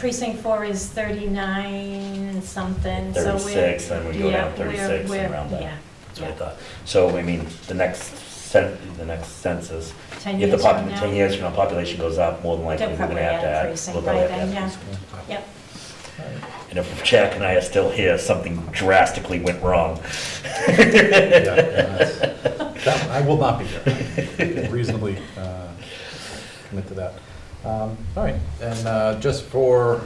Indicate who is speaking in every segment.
Speaker 1: Precinct four is thirty-nine something, so we're.
Speaker 2: 36, then we go
Speaker 1: yeah,
Speaker 2: down 36 and
Speaker 1: we're- we're-
Speaker 2: round up.
Speaker 1: Yeah,
Speaker 2: That's what I
Speaker 1: yeah.
Speaker 2: thought. So, I mean, the next cen, the next census,
Speaker 1: Ten
Speaker 2: if the
Speaker 1: years from
Speaker 2: pop,
Speaker 1: now.
Speaker 2: ten years from now, population goes up, more than likely,
Speaker 1: They'll
Speaker 2: we're
Speaker 1: probably
Speaker 2: gonna
Speaker 1: add
Speaker 2: have to
Speaker 1: a
Speaker 2: add.
Speaker 1: precinct
Speaker 2: we'll
Speaker 1: by
Speaker 2: probably have to
Speaker 1: then,
Speaker 2: add
Speaker 1: yeah.
Speaker 2: precinct.
Speaker 1: Yep,
Speaker 2: And if Jack and I are still here, something drastically went wrong.
Speaker 3: Yeah, that's- that- I will not be here. I can Reasonably uh, commit to that. Um, All right, and uh, just for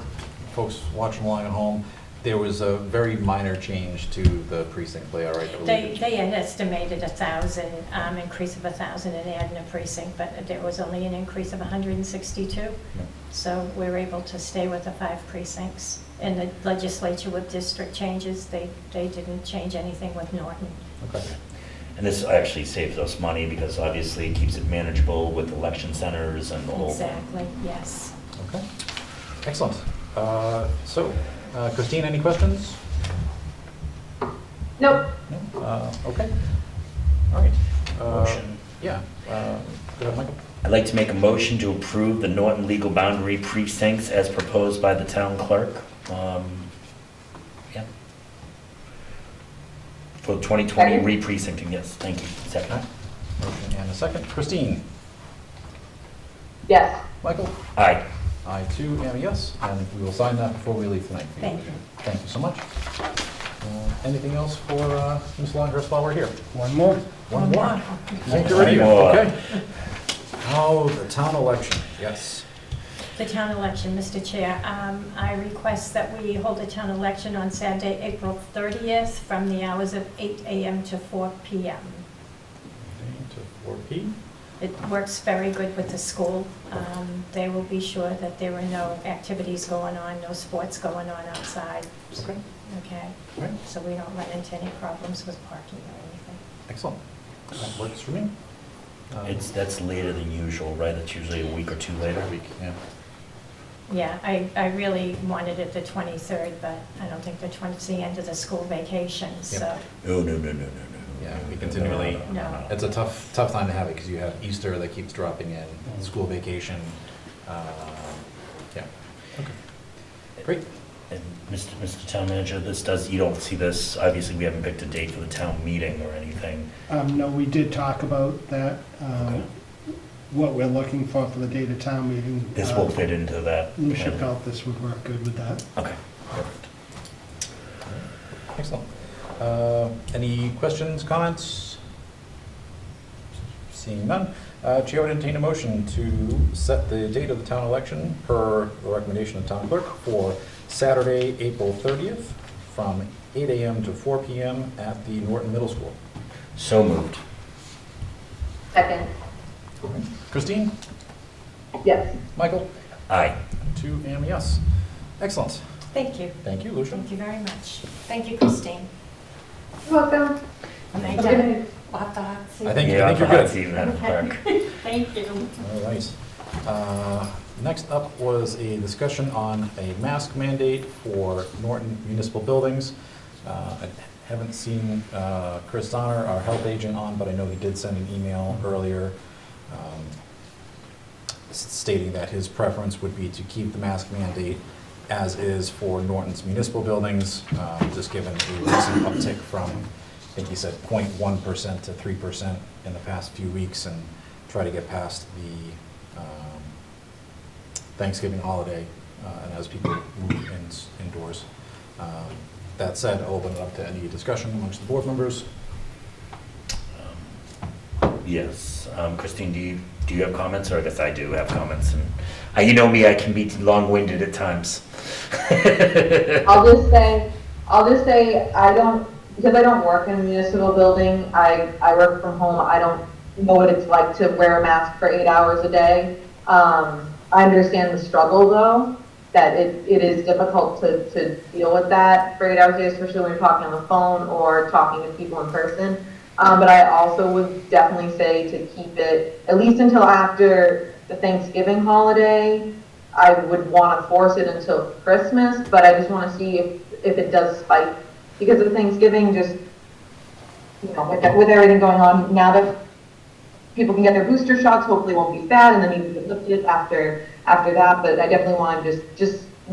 Speaker 3: folks watching along at home, there was a very minor change to the precinct layout, right? that we-
Speaker 1: they, they had estimated a thousand, um, increase of a thousand and adding a precinct, but there was only an increase of hundred and sixty-two.
Speaker 3: Yeah.
Speaker 1: So we're able to stay with the five precincts. And the legislature with district changes, they, they didn't change anything with Norton.
Speaker 3: Okay.
Speaker 2: And this actually saves us money because obviously it keeps it manageable with election centers and the whole thing.
Speaker 1: Exactly, yes.
Speaker 3: Okay, excellent. Uh, So, uh, Christine, any questions?
Speaker 4: Nope.
Speaker 3: No? Uh, Okay, all right. Uh,
Speaker 2: Motion.
Speaker 3: Yeah. uh, Go ahead, Michael.
Speaker 2: I'd like to make a motion to approve the Norton legal boundary precincts as proposed by the town clerk. Um, yeah. For 2020
Speaker 4: Second.
Speaker 2: re-precincting, yes, thank you. Second.
Speaker 3: Motion and a second. Christine?
Speaker 4: Yes.
Speaker 3: Michael?
Speaker 2: Aye.
Speaker 3: I too am a yes, and we will sign that before we leave tonight.
Speaker 1: Thank you.
Speaker 3: Thank you so much. Uh, Anything else for uh, Ms. Longhurst while we're here?
Speaker 5: One more.
Speaker 3: One more. Thank you,
Speaker 2: One
Speaker 3: Lydia.
Speaker 2: more.
Speaker 3: Okay. Now, the town election, yes.
Speaker 1: The town election, Mr. Chair. Um, I request that we hold a town election on Saturday, April 30th, from the hours of 8 AM to 4 PM.
Speaker 3: To 4P.
Speaker 1: It works very good with the school. Um, They will be sure that there are no activities going on, no sports going on outside,
Speaker 3: Okay,
Speaker 1: okay?
Speaker 3: all right,
Speaker 1: So we don't run into any problems with parking or anything.
Speaker 3: excellent. That works for me. Um,
Speaker 2: It's, that's later than usual, right? It's usually a week or two later.
Speaker 3: Week, yeah.
Speaker 1: Yeah, I, I really wanted it the 23rd, but I don't think the 20, it's the end of the school vacation, so.
Speaker 2: No, no, no, no, no, no.
Speaker 3: Yeah, we continually-
Speaker 2: No, no, no, no,
Speaker 3: It's
Speaker 2: no.
Speaker 3: a tough, tough time to have it because you have Easter that keeps dropping
Speaker 5: Mm-hmm.
Speaker 3: in, school vacation. uh, Yeah. Okay. Great.
Speaker 2: And Mr. Mr. Town Manager, this does, you don't see this, obviously, we haven't picked a date for the town meeting or anything.
Speaker 5: Um, no, we did talk about that,
Speaker 2: Okay.
Speaker 5: um, what we're looking for for the date of town meeting.
Speaker 2: This
Speaker 5: Uh,
Speaker 2: will fit into that.
Speaker 5: Lucia felt this would work good with that.
Speaker 2: Okay, perfect.
Speaker 3: Excellent. Uh, Any questions, comments? Seeing none, uh, Chair would entertain a motion to set the date of the town election per the recommendation of town clerk for Saturday, April 30th, from 8 AM to 4 PM at the Norton Middle School.
Speaker 2: So moved.
Speaker 4: Second.
Speaker 3: Christine?
Speaker 4: Yes.
Speaker 3: Michael?
Speaker 2: Aye.
Speaker 3: Two AM, yes. Excellent.
Speaker 1: Thank you.
Speaker 3: Thank you, Lucia.
Speaker 1: Thank you very much. Thank you, Christine.
Speaker 4: You're welcome.
Speaker 1: Thank
Speaker 4: Have a good
Speaker 1: you.
Speaker 4: night.
Speaker 1: We'll have the hot seat.
Speaker 3: I think,
Speaker 2: Yeah,
Speaker 3: I think
Speaker 2: the
Speaker 3: you're
Speaker 2: hot
Speaker 3: good.
Speaker 2: seat, Madam Clerk.
Speaker 1: Thank you.
Speaker 3: All right. Uh, Next up was a discussion on a mask mandate for Norton municipal buildings. Uh, I haven't seen uh, Chris Donner, our health agent, on, but I know he did send an email earlier um, s- stating that his preference would be to keep the mask mandate as is for Norton's municipal buildings, uh, just given a recent uptick from, I think he said 0.1% to 3% in the past few weeks, and try to get past the um, Thanksgiving holiday, uh, and as people move in- indoors. Um, That said, I'll open it up to any discussion amongst the board members.
Speaker 2: Yes. Um, Christine, do you, do you have comments? Or I guess I do have comments. And uh, You know me, I can be long-winded at times.
Speaker 4: I'll just say, I'll just say, I don't, because I don't work in a municipal building, I, I work from home, I don't know what it's like to wear a mask for eight hours a day. Um, I understand the struggle though, that it, it is difficult to, to deal with that for eight hours a day, especially when you're talking on the phone or talking to people in person. Um, but I also would definitely say to keep it, at least until after the Thanksgiving holiday, I would want to force it until Christmas, but I just want to see if, if it does spike because of Thanksgiving, just, you know, with, with everything going on, now that people can get their booster shots, hopefully it won't be bad, and then you can lift it after, after that, but I definitely want to just, just